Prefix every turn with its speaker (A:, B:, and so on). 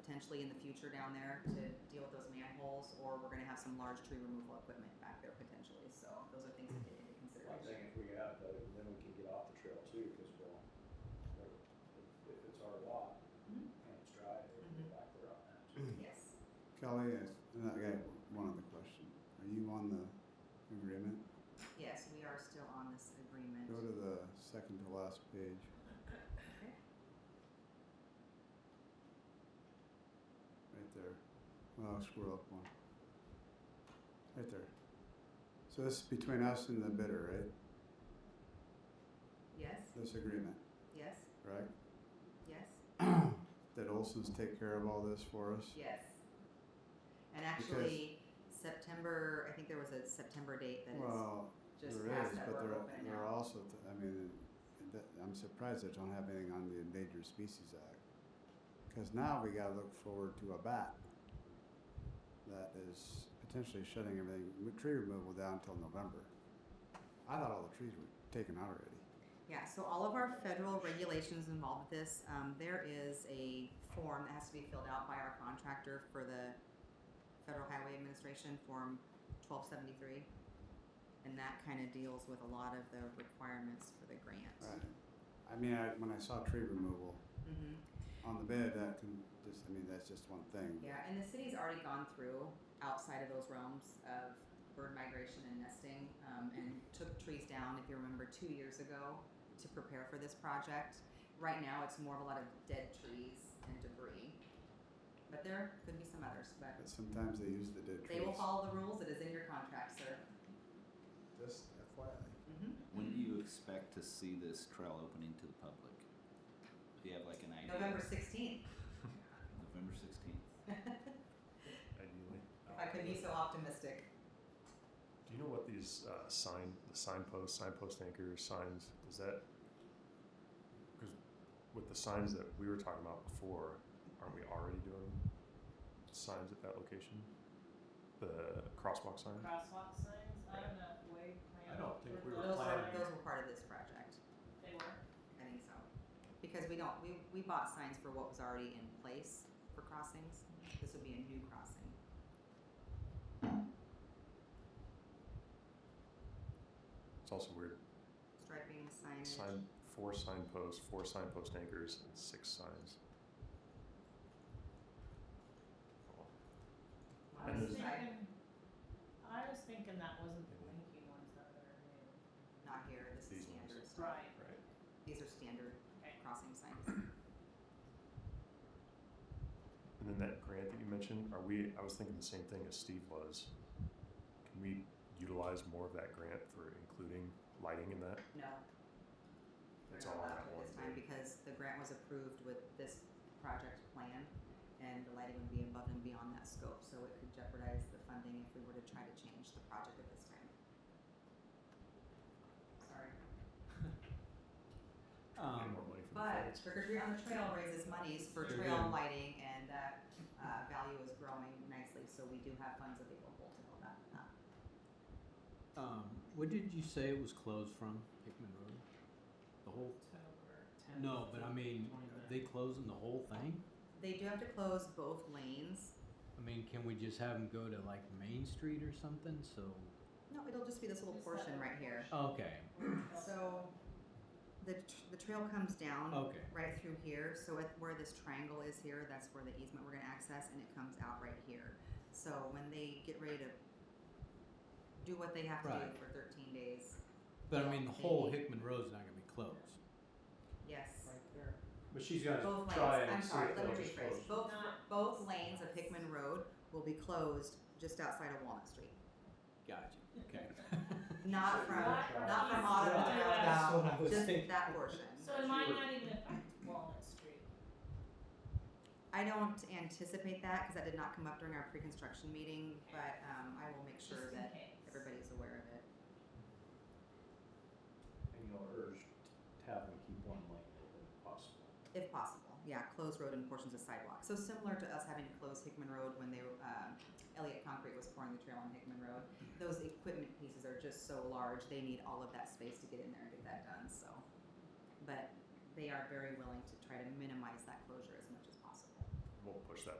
A: potentially in the future down there to deal with those manholes, or we're gonna have some large tree removal equipment back there potentially, so those are things to take into
B: I
A: consideration.
B: think if we have, that, then we can get off the trail too, because we'll, if- if it's our lot
A: Mhm.
B: and it's dry, they can go back there on that too.
A: Yes.
C: Kelly, yes, and I got one other question. Are you on the agreement?
A: Yes, we are still on this
C: Go
A: agreement.
C: to the second to last page. Right there. Well, I'll scroll up one. Right there. So this is between us and the bidder, right?
A: Yes,
C: This agreement,
A: yes,
C: right?
A: yes,
C: That Olson's take care of all this for us?
A: yes. And actually, September, I think there was a September date that is
C: Well,
A: just
C: there
A: past
C: is,
A: that
C: but
A: we're
C: there,
A: open
C: there are
A: now.
C: also, th- I mean, that, I'm surprised they don't have anything on the Endangered Species Act. Cause now we gotta look forward to a bat that is potentially shutting everything, with tree removal down till November. I thought all the trees were taken out already.
A: Yeah, so all of our federal regulations involved with this, um, there is a form that has to be filled out by our contractor for the Federal Highway Administration, Form twelve seventy-three. And that kind of deals with a lot of the requirements for the grant.
C: Right. I mean, I, when I saw tree removal
A: hmm
C: on the bid, that can just, I mean, that's just one thing.
A: Yeah, and the city's already gone through outside of those realms of bird migration and nesting um, and took trees down, if you remember, two years ago to prepare for this project. Right now, it's more of a lot of dead trees and debris, but there could be some others. But
C: But sometimes they use the dead trees.
A: they will follow the rules. It is in your contract, sir.
C: Just
A: hmm
C: FYI.
D: Mm-hmm.
E: Mm-hmm. When do you expect to see this trail opening to the public? Do you have like an idea?
A: November sixteenth,
E: November sixteenth.
F: ideally.
A: if I could be so optimistic.
F: Do you know what these uh, sign, the signposts, signpost anchors, signs? Is that because with the signs that we were talking about before, aren't we already doing signs at that location? The crosswalk sign.
G: crosswalk signs, I don't know, if Wade planned.
B: I don't think we
G: for
B: were
A: Those
G: those,
A: were
B: planning.
A: those were part of this project.
G: They were,
A: I think so. Because we don't, we, we bought signs for what was already in place for crossings. This would be a new crossing.
F: It's also weird.
A: Striping, signage.
F: Sign four signposts, four signpost anchors, and six signs. Oh,
G: I
F: And
G: was
F: there's-
G: thinking, I was thinking that wasn't the winky ones that are new.
A: Not here, this is
F: These ones.
A: standard. stuff.
G: Right,
F: Right.
A: These are standard
G: okay,
A: crossing signs.
F: And then that grant that you mentioned, are we? I was thinking the same thing as Steve was. Can we utilize more of that grant for including lighting in that?
A: No. we're
F: It's
A: not
F: all on
A: allowed
F: that
A: to
F: one
A: This time
F: bid.
A: because the grant was approved with this project plan and the lighting would be above and beyond that scope, so it could jeopardize the funding if we were to try to change the project at this time. Sorry.
F: Get
D: Um,
F: more money from the
A: But
F: feds.
A: Trick or Treat on the Trail raises monies for
D: Very
A: trail
D: good.
A: lighting and that uh, value is growing nicely, so we do have funds available to help that. uh. up.
D: um, what did you say it was closed from, Hickman Road? The whole,
G: October tenth.
D: no, but I mean, are they closing the whole thing?
A: They do have to close both lanes.
D: I mean, can we just have them go to like Main Street or something, so?
A: No, it'll just be this little
G: Just that
A: portion
G: little
A: right here.
D: Okay,
A: So the, tr- the trail comes down.
D: okay,
A: right through here. So at where this triangle is here, that's where the easement we're gonna access and it comes out right here. So when they get ready to do what they have to do
D: Right.
A: for thirteen days,
D: but I mean, the whole
A: Maybe.
D: Hickman Road's not gonna be closed.
A: yes.
G: Right there.
B: But she's gonna
A: Both
B: try
A: lanes,
B: and
A: I'm
B: see
A: sorry,
B: if
A: let me
B: they'll just close.
A: rephrase, both,
G: Not-
A: both lanes of Hickman Road will be closed just outside of Walnut Street.
D: Gotcha, okay.
A: Not from, uh,
G: Not
A: not from
G: east
A: Autumn to
G: to
D: That's what
G: west.
D: I
A: Alabama,
D: was
A: just
D: thinking.
A: that portion.
G: So it might not even affect Walnut Street.
A: I don't anticipate that, cause that did not come up during our pre-construction meeting, but, um, I will make
G: just
A: sure
G: in
A: that
G: case.
A: everybody's aware of it.
B: And you'll urge to have them keep one lane open if possible.
A: If possible, yeah, closed road and portions of sidewalk. So similar to us having to close Hickman Road when they, um, Elliott Concrete was pouring the trail on Hickman Road. Those equipment pieces are just so large, they need all of that space to get in there and get that done, so. But they are very willing to try to minimize that closure as much as possible.
F: We'll push that